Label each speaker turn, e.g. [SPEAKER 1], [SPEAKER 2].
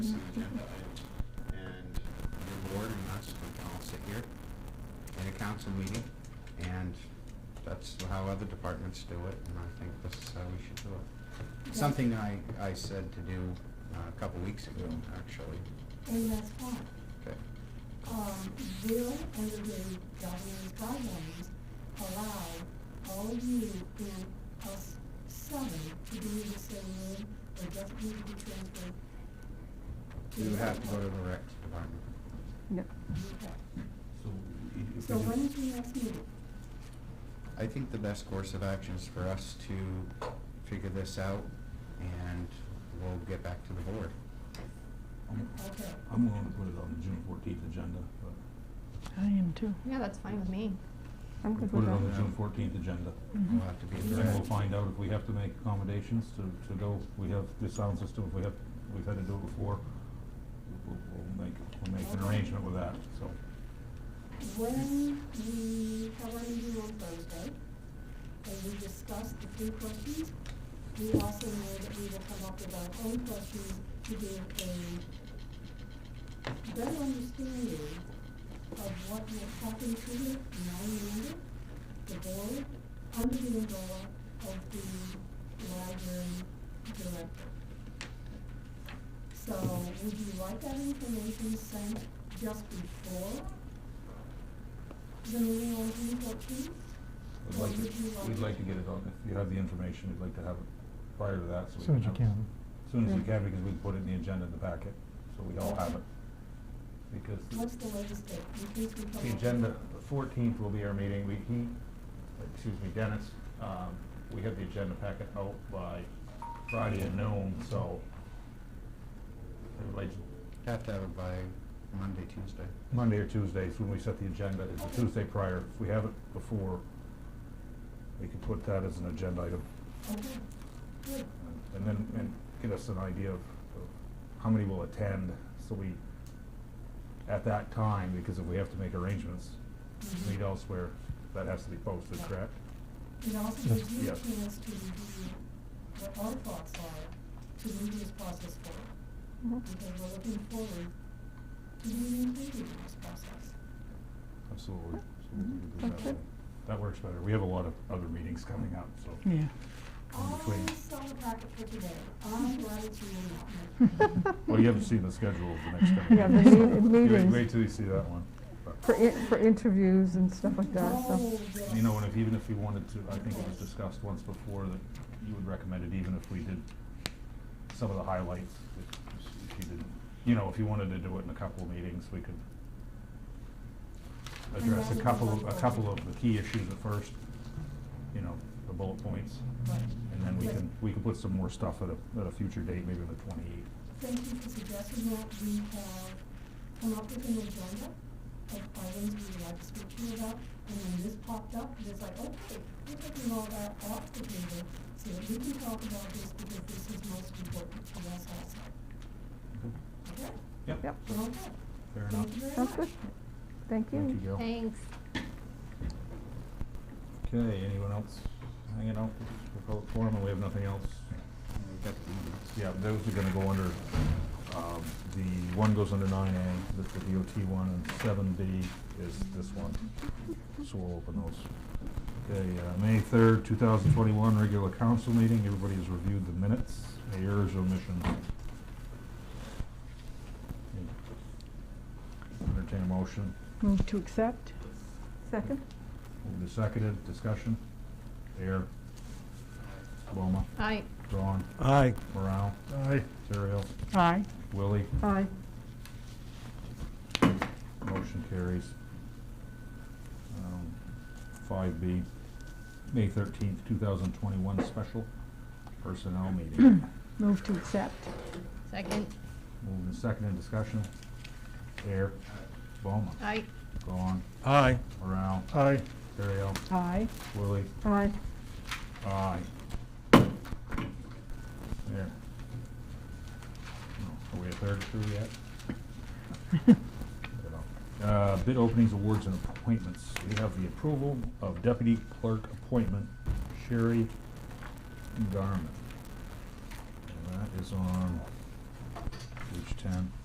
[SPEAKER 1] It's an agenda item. And the board and us, we can all sit here in a council meeting, and that's how other departments do it, and I think this is how we should do it. Something I, I said to do uh, a couple weeks ago, actually.
[SPEAKER 2] And that's fine.
[SPEAKER 1] Okay.
[SPEAKER 2] Um, will, under the governor's guidelines, allow all of you and us seven to be in the same room, or doesn't need to be transferred?
[SPEAKER 1] You would have to go to the rec department.
[SPEAKER 3] No,
[SPEAKER 2] Okay.
[SPEAKER 4] So i- if
[SPEAKER 2] So
[SPEAKER 4] we
[SPEAKER 2] when
[SPEAKER 4] do-
[SPEAKER 2] is your next meeting?
[SPEAKER 1] I think the best course of action is for us to figure this out, and we'll get back to the board.
[SPEAKER 4] I'm-
[SPEAKER 2] Okay.
[SPEAKER 4] I'm willing to put it on the June fourteenth agenda, but.
[SPEAKER 3] I am too.
[SPEAKER 5] Yeah, that's fine with me.
[SPEAKER 3] I'm
[SPEAKER 4] we
[SPEAKER 3] good
[SPEAKER 4] Put
[SPEAKER 3] with
[SPEAKER 4] it on the
[SPEAKER 3] that.
[SPEAKER 4] June fourteenth agenda.
[SPEAKER 3] Mhm.
[SPEAKER 1] We'll
[SPEAKER 2] Mm-hmm.
[SPEAKER 1] have to be
[SPEAKER 4] And
[SPEAKER 1] direct.
[SPEAKER 4] we'll find out if we have to make accommodations to, to go, we have the sound system, if we have, we've had to do it before. We'll, we'll make, we'll make an
[SPEAKER 2] Okay.
[SPEAKER 4] arrangement with that, so.
[SPEAKER 2] When we have our meeting on Thursday, and we discuss the three questions, we also know that we will come up with our own questions to give a better understanding of what will happen to the non-member, the board, under the umbrella of the library director. So would you like that information sent just before the meeting on June fourteenth?
[SPEAKER 4] We'd like to, we'd like to get it on, if you have the information, we'd like to have it prior to that, so. we
[SPEAKER 6] Soon as you
[SPEAKER 4] have it.
[SPEAKER 6] can.
[SPEAKER 4] Soon as we
[SPEAKER 3] Yeah.
[SPEAKER 4] can, because we put it in the agenda in the packet, so we all have it. Because.
[SPEAKER 2] What's the latest date? In case we come up
[SPEAKER 4] The
[SPEAKER 2] with-
[SPEAKER 4] agenda, fourteenth will be our meeting, we, he, excuse me, Dennis, um, we have the agenda packet out by Friday at noon, so. I would like,
[SPEAKER 1] Have to have it by Monday, Tuesday.
[SPEAKER 4] Monday or Tuesday is when we set the agenda, it's the Tuesday prior, if we have it before, we can put that as an agenda item,
[SPEAKER 2] Okay, good.
[SPEAKER 4] and then, and get us an idea of of how many will attend, so we, at that time, because if we have to make arrangements,
[SPEAKER 2] Mhm.
[SPEAKER 3] Mm-hmm.
[SPEAKER 4] meet elsewhere, that has to be posted, correct?
[SPEAKER 2] It also gives you a
[SPEAKER 4] Yes.
[SPEAKER 2] chance to review what our thoughts are, to move this process forward.
[SPEAKER 3] Mhm.
[SPEAKER 2] Because we're looking forward to being included in this process.
[SPEAKER 4] Absolutely.
[SPEAKER 3] Mhm. That's it.
[SPEAKER 4] That works better. We have a lot of other meetings coming up, so.
[SPEAKER 3] Yeah.
[SPEAKER 4] In between.
[SPEAKER 2] I saw the packet for today. I'm glad it's you and not me.
[SPEAKER 4] Well, you haven't seen the schedule of the next coming.
[SPEAKER 3] Yeah,
[SPEAKER 4] meeting,
[SPEAKER 3] the
[SPEAKER 4] so
[SPEAKER 3] meet-
[SPEAKER 4] you
[SPEAKER 3] meetings.
[SPEAKER 4] Wait wait till you see that one.
[SPEAKER 3] For, in- for interviews and stuff like that, so.
[SPEAKER 2] Oh, yes.
[SPEAKER 4] You know, and if, even if you wanted to, I think it was discussed once before that you would recommend it even if we did some of the highlights, if if you didn't, you know, if you wanted to do it in a couple of meetings, we could
[SPEAKER 2] And
[SPEAKER 4] address
[SPEAKER 2] that
[SPEAKER 4] a
[SPEAKER 2] would be
[SPEAKER 4] couple, of-
[SPEAKER 2] much
[SPEAKER 4] a couple of the key issues at first, you know, the bullet points.
[SPEAKER 2] Right.
[SPEAKER 4] And then we
[SPEAKER 2] Right.
[SPEAKER 4] can, we can put some more stuff at a, at a future date, maybe the twenty-eighth.
[SPEAKER 2] Thank you for suggesting that. We have come up with an agenda of items we would like to speak to you about. And when this popped up, it's like, okay, we're taking all that off the table so that we can talk about this because this is most important to us also. Okay?
[SPEAKER 4] Yep.
[SPEAKER 3] Yep.
[SPEAKER 2] Okay.
[SPEAKER 4] Fair enough.
[SPEAKER 2] Thank you very
[SPEAKER 3] Sounds
[SPEAKER 2] much.
[SPEAKER 3] good. Thank
[SPEAKER 4] Thank you,
[SPEAKER 3] you.
[SPEAKER 4] Gil.
[SPEAKER 5] Thanks.
[SPEAKER 4] Okay, anyone else hanging out? We'll call it forum, and we have nothing else.
[SPEAKER 1] We've got the emails.
[SPEAKER 4] Yeah, those are gonna go under, um, the, one goes under nine A, that's the DOT one, and seven B is this one. So we'll open those. Okay, uh, May third, two thousand twenty-one, regular council meeting. Everybody has reviewed the minutes. Any errors or omissions? Entertain a motion.
[SPEAKER 3] Move to accept. Second.
[SPEAKER 4] Moved and seconded, discussion? Air. Loma.
[SPEAKER 5] Aye.
[SPEAKER 4] Dawn.
[SPEAKER 6] Aye.
[SPEAKER 4] Morale.
[SPEAKER 6] Aye.
[SPEAKER 4] Terrell.
[SPEAKER 3] Aye.
[SPEAKER 4] Willie.
[SPEAKER 3] Aye.
[SPEAKER 4] Motion carries. Um, Five B, May thirteenth, two thousand twenty-one, special personnel meeting.
[SPEAKER 3] Move to accept.
[SPEAKER 5] Second.
[SPEAKER 4] Moved and seconded, discussion? Air. Loma.
[SPEAKER 5] Aye.
[SPEAKER 4] Dawn.
[SPEAKER 6] Aye.
[SPEAKER 4] Morale.
[SPEAKER 6] Aye.
[SPEAKER 4] Terrell.
[SPEAKER 3] Aye.
[SPEAKER 4] Willie.
[SPEAKER 3] Aye.
[SPEAKER 4] Aye. There. No, Are we a third through yet? Uh, bid openings, awards, and appointments. We have the approval of deputy clerk appointment, Sherry Garman. And that is on the page ten.